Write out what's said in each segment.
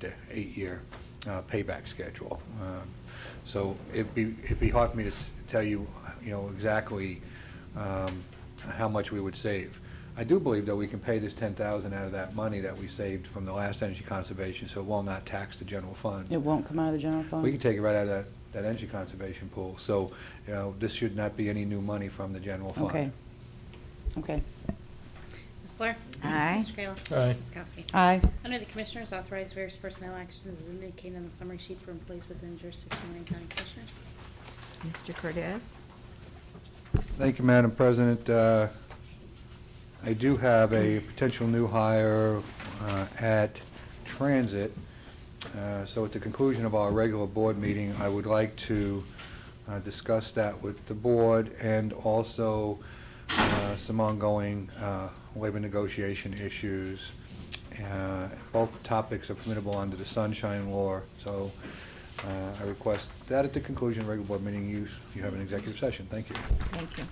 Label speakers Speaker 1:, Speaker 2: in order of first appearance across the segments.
Speaker 1: to eight-year uh, payback schedule. Um, So it'd be, it'd be hard for me to s- tell you, you know, exactly um, how much we would save. I do believe that we can pay this ten thousand out of that money that we saved from the last energy conservation, so it will not tax the general fund.
Speaker 2: It won't come out of the general fund?
Speaker 1: We can take it right out of that, that energy conservation pool. So, you know, this should not be any new money from the general fund.
Speaker 2: Okay. Okay.
Speaker 3: Ms. Blair?
Speaker 4: Aye.
Speaker 3: Mr. Kayla?
Speaker 5: Aye.
Speaker 3: Ms. Kowski?
Speaker 2: Aye.
Speaker 3: Under the Commissioners, authorize various personnel actions as indicated on the summary sheet for employees within jurisdiction of Lorraine County Commissioners.
Speaker 4: Mr. Cordez?
Speaker 1: Thank you, Madam President. Uh, I do have a potential new hire uh, at Transit. Uh, So at the conclusion of our regular board meeting, I would like to uh, discuss that with the board and also uh, some ongoing uh, labor negotiation issues. Uh, Both topics are permissible under the sunshine law, so uh, I request that at the conclusion of regular board meeting, you you have an executive session. Thank you.
Speaker 4: Thank you.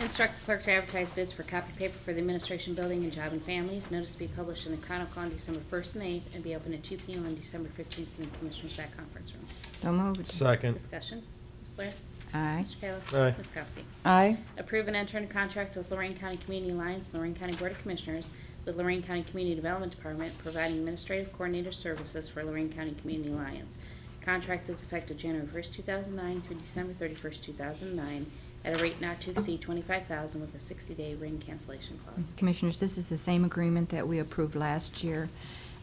Speaker 3: Instruct the clerk to advertise bids for copy paper for the Administration Building and Job and Families. Notice to be published in the Chronicle on December 1st and 8th and be open at 2 p.m. on December 15th in the Commissioners' back conference room.
Speaker 4: So moved.
Speaker 5: Second.
Speaker 3: Discussion. Ms. Blair?
Speaker 4: Aye.
Speaker 3: Mr. Kayla?
Speaker 5: Aye.
Speaker 3: Ms. Kowski?
Speaker 2: Aye.
Speaker 3: Approve and enter into contract with Lorraine County Community Alliance, and Lorraine County Board of Commissioners, with Lorraine County Community Development Department, providing administrative coordinator services for Lorraine County Community Alliance. Contract is effective January 1st, 2009 through December 31st, 2009, at a rate not to exceed 25000 with a 60-day ring cancellation clause.
Speaker 4: Commissioners, this is the same agreement that we approved last year.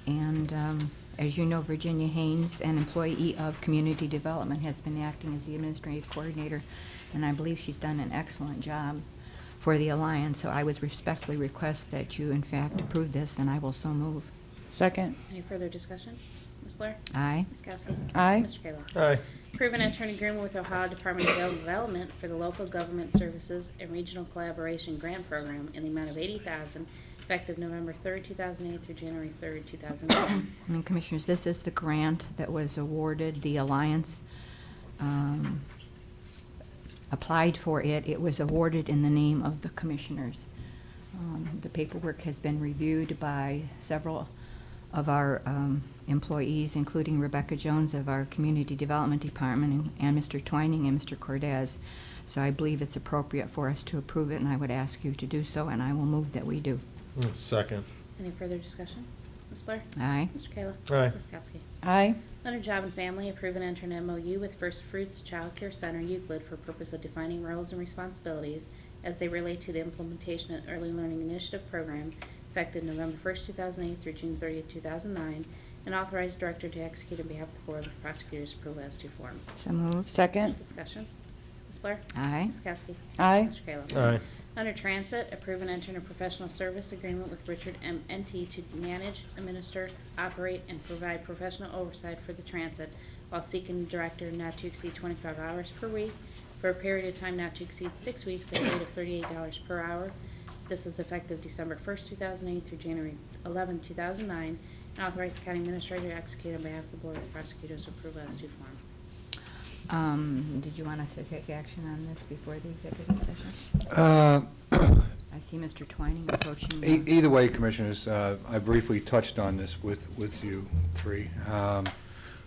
Speaker 4: And um, as you know, Virginia Haynes, an employee of Community Development, has been acting as the administrative coordinator, and I believe she's done an excellent job for the Alliance. So I would respectfully request that you, in fact, approve this, and I will so move.
Speaker 2: Second.
Speaker 3: Any further discussion? Ms. Blair?
Speaker 4: Aye.
Speaker 3: Ms. Kowski?
Speaker 2: Aye.
Speaker 3: Mr. Kayla?
Speaker 5: Aye.
Speaker 3: Approve and enter an agreement with Ohio Department of Development for the Local Government Services and Regional Collaboration Grant Program in the amount of eighty thousand, effective November third, two thousand eight through January third, two thousand nine.
Speaker 4: And Commissioners, this is the grant that was awarded, the Alliance um, applied for it. It was awarded in the name of the Commissioners. Um, The paperwork has been reviewed by several of our um, employees, including Rebecca Jones of our Community Development Department, and and Mr. Twining and Mr. Cordez. So I believe it's appropriate for us to approve it, and I would ask you to do so, and I will move that we do.
Speaker 5: Mm, Second.
Speaker 3: Any further discussion? Ms. Blair?
Speaker 4: Aye.
Speaker 3: Mr. Kayla?
Speaker 5: Aye.
Speaker 3: Ms. Kowski?
Speaker 2: Aye.
Speaker 3: Under Job and Family, approve and enter an MOU with First Fruits Child Care Center Euclid for purpose of defining roles and responsibilities as they relate to the implementation of Early Learning Initiative Program effective November 1st, 2008 through June 30th, 2009, and authorize director to execute on behalf of the Board with prosecutors' approval as to form.
Speaker 4: So moved.
Speaker 2: Second.
Speaker 3: Discussion. Ms. Blair?
Speaker 4: Aye.
Speaker 3: Ms. Kowski?
Speaker 2: Aye.
Speaker 3: Mr. Kayla?
Speaker 5: Aye.
Speaker 3: Under Transit, approve and enter a professional service agreement with Richard M. NT to manage, administer, operate, and provide professional oversight for the transit while seeking a director not to exceed 25 hours per week for a period of time not to exceed six weeks at a rate of $38 per hour. This is effective December 1st, 2008 through January 11th, 2009, and authorize the county administrator to execute on behalf of the Board of Prosecutors' approval as due form.
Speaker 4: Um, Did you want us to take action on this before the executive session?
Speaker 1: Uh,
Speaker 4: I see Mr. Twining approaching. the-
Speaker 1: E- Either way, Commissioners, uh, I briefly touched on this with, with you three. Um,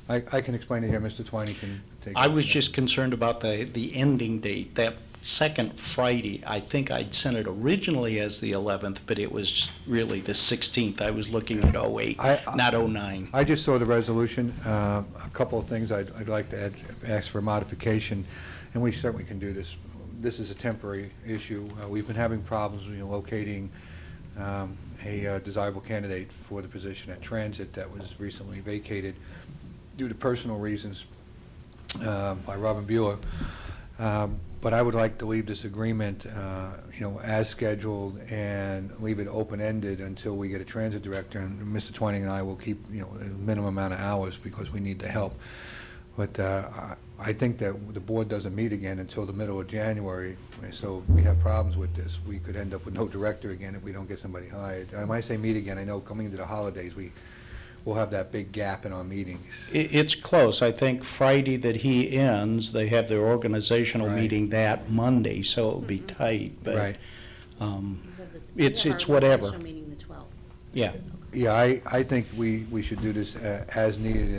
Speaker 1: I, I can explain it here, Mr. Twining can take.
Speaker 6: I was just concerned about the, the ending date, that second Friday. I think I'd sent it originally as the 11th, but it was really the 16th. I was looking at 08,
Speaker 1: I- I-
Speaker 6: not 09.
Speaker 1: I just saw the resolution, Um, a couple of things I'd, I'd like to add, ask for modification, and we certainly can do this. This is a temporary issue. Uh, We've been having problems you know, locating um, a uh, desirable candidate for the position at Transit that was recently vacated due to personal reasons uh, by Robin Bueller. Um, But I would like to leave this agreement, uh, you know, as scheduled and leave it open-ended until we get a transit director. And Mr. Twining and I will keep, you know, a minimum amount of hours because we need the help. But uh, I I think that the board doesn't meet again until the middle of January, so if we have problems with this. We could end up with no director again if we don't get somebody hired. And When I say meet again, I know coming into the holidays, we will have that big gap in our meetings.
Speaker 6: I- It's close. I think Friday that he ends, they have their organizational
Speaker 1: Right.
Speaker 6: meeting that Monday, so it'll be tight. but,
Speaker 1: Right.
Speaker 6: um,
Speaker 3: We have the- we
Speaker 6: It's-
Speaker 3: have our
Speaker 6: it's whatever.
Speaker 3: Special meeting the 12th.
Speaker 6: Yeah,
Speaker 1: Yeah, I, I think we, we should do this uh, as needed